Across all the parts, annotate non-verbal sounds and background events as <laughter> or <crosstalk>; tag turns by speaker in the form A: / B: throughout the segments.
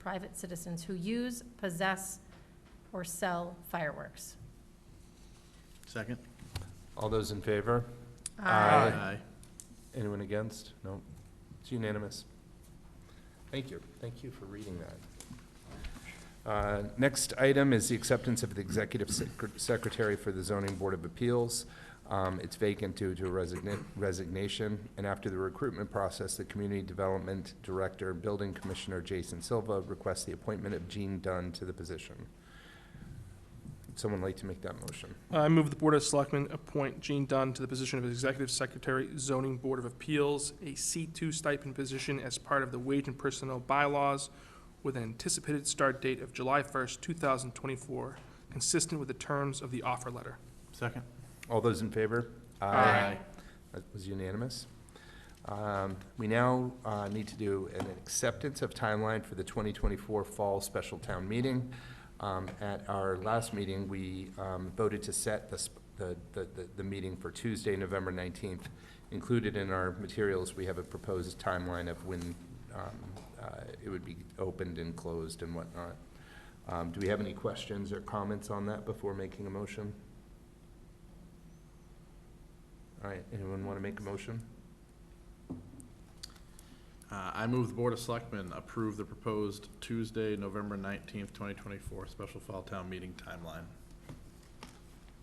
A: private citizens who use, possess, or sell fireworks.
B: Second?
C: All those in favor? Aye.
B: Aye.
C: Anyone against? No. It's unanimous. Thank you. Thank you for reading that. Uh, Next item is the acceptance of the executive sec- secretary for the zoning board of appeals. Um, It's vacant due to a resigna- resignation. And after the recruitment process, the community development director, and building commissioner Jason Silva requests the appointment of Gene Dunn to the position. Would Someone like to make that motion?
D: I move the Board of Selectmen appoint Gene Dunn to the position of Executive Secretary, Zoning Board of Appeals, a C2 stipend position as part of the Wage and Personnel Bylaws with an anticipated start date of July 1st, 2024, consistent with the terms of the offer letter.
B: Second?
C: All those in favor?
D: Aye.
C: That was unanimous. Um, We now uh, need to do an acceptance of timeline for the 2024 Fall Special Town Meeting. Um, At our last meeting, we um, voted to set the sp- the, the, the- the meeting for Tuesday, November 19th. Included in our materials, we have a proposed timeline of when um, uh, it would be opened and closed and whatnot. Um, Do we have any questions or comments on that before making a motion? All right, anyone want to make a motion?
B: Uh, I move the Board of Selectmen approve the proposed Tuesday, November nineteenth, twenty twenty-four special fall town meeting timeline.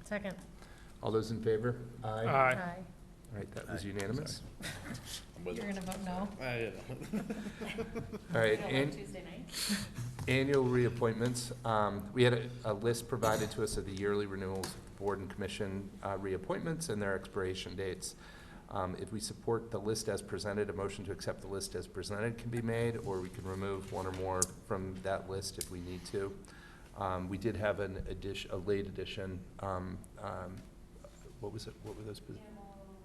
A: Second.
C: All those in favor? All
D: Aye.
C: right, that was
B: Aye.
C: unanimous.
A: You're gonna vote no?
D: uh, <laughs>
C: All right, an-
A: Tuesday night?
C: annual reappointments. Um, We had a- a list provided to us of the yearly renewals, of board and commission uh, reappointments and their expiration dates. Um, If we support the list as presented, a motion to accept the list as presented can be made, or we can remove one or more from that list if we need to. Um, We did have an addition, a late addition, um, um, what was it, what were those? posi-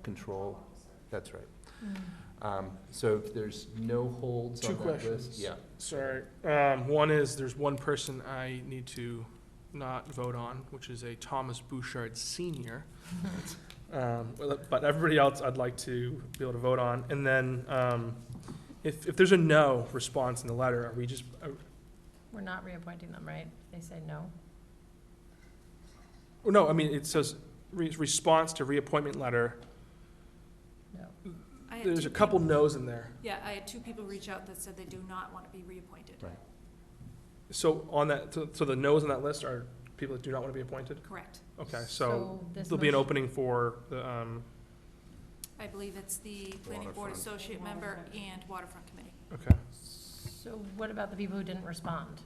C: Control, that's right.
A: Mm,
C: Um, So if there's no holds
D: Two
C: on that list.
D: questions.
C: Yeah.
D: Sorry. Um, One is, there's one person I need to not vote on, which is a Thomas Bouchard Senior. Um, well, But everybody else I'd like to be able to vote on. And then um, if, if there's a no response in the letter, are we just, uh, are-
A: We're not reappointing them, right? They say no.
D: oh, no, I mean, it says re- response to reappointment letter.
A: No.
E: I had
D: There's
E: two
D: a couple
E: people-
D: no's in there.
E: Yeah, I had two people reach out that said they do not want to be reappointed.
C: Right.
D: So on that, so so the no's on that list are people that do not want to be appointed?
E: Correct.
D: Okay, so
A: this
D: there'll be an
A: motion-
D: opening for the, um,
E: I believe it's the Planning Board
B: Waterfront.
E: Associate Member and Waterfront Committee.
D: okay.
A: So what about the people who didn't respond?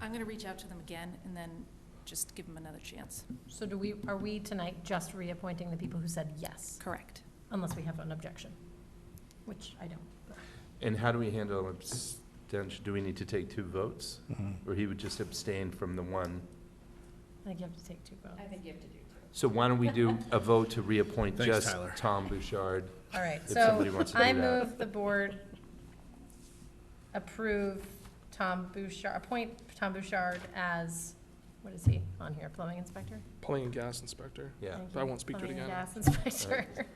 E: I'm going to reach out to them again and then just give them another chance.
A: So do we, are we tonight just reappointing the people who said yes,
E: Correct.
A: unless we have an objection? Which I don't. but-
C: And how do we handle abstention? Do we need to take two votes? Or he would just abstain from the one?
A: I think you have to take two votes.
F: think you have to do two.
C: So why don't we do a vote to reappoint
B: Thanks,
C: just
B: Tyler.
C: Tom Bouchard?
A: All right,
C: If somebody
A: so
C: wants to do
A: I
C: that.
A: move the board approve Tom Bouchard, appoint Tom Bouchard as, what is he on here, plumbing inspector?
D: Plumbing and gas inspector.
C: Yeah.
A: Thank
D: But I
A: you.
D: won't speak to it
A: Plumbing and
D: again.
A: Gas inspector.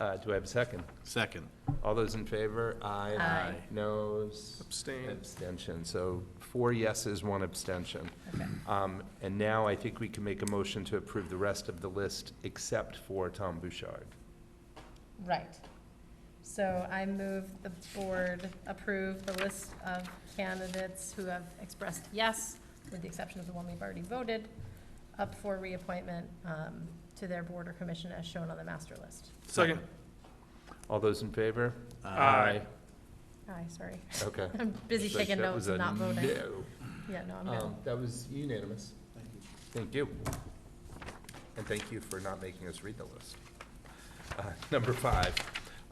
C: Uh, do I have a second?
B: Second.
C: All those in favor? Aye.
A: <laughs> Aye.
C: Noes?
D: Abstain.
C: Abstention. So four yeses, one abstention.
A: Okay.
C: Um, and now I think we can make a motion to approve the rest of the list except for Tom Bouchard.
A: Right. So I move the board approve the list of candidates who have expressed yes, with the exception of the one we've already voted, up for reappointment um, to their board or commission as shown on the master list.
D: Second.
C: All those in favor?
B: Uh,
D: Aye.
A: Aye, sorry.
C: Okay.
A: I'm busy
C: Like,
A: taking
C: that was
A: notes
C: a
A: and not voting.
C: no.
A: Yeah, no, I'm
C: Um,
A: no.
C: That was unanimous. Thank you. And thank you for not making us read the list. Uh, Number five,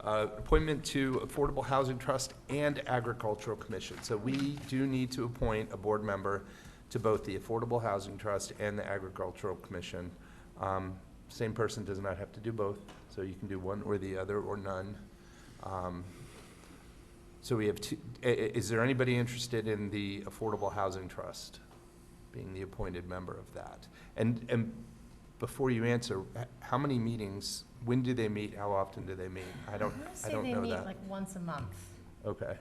C: uh, appointment to Affordable Housing Trust and Agricultural Commission. So we do need to appoint a board member to both the Affordable Housing Trust and the Agricultural Commission. Um, Same person does not have to do both, so you can do one or the other or none. Um, So we have two, i- i- is there anybody interested in the Affordable Housing Trust, being the appointed member of that? And, and before you answer, h- how many meetings, when do they meet, how often do they meet? I don't,
A: I'm gonna
C: I
A: say
C: don't
A: they
C: know
A: meet
C: that.
A: like once a month.
C: Okay,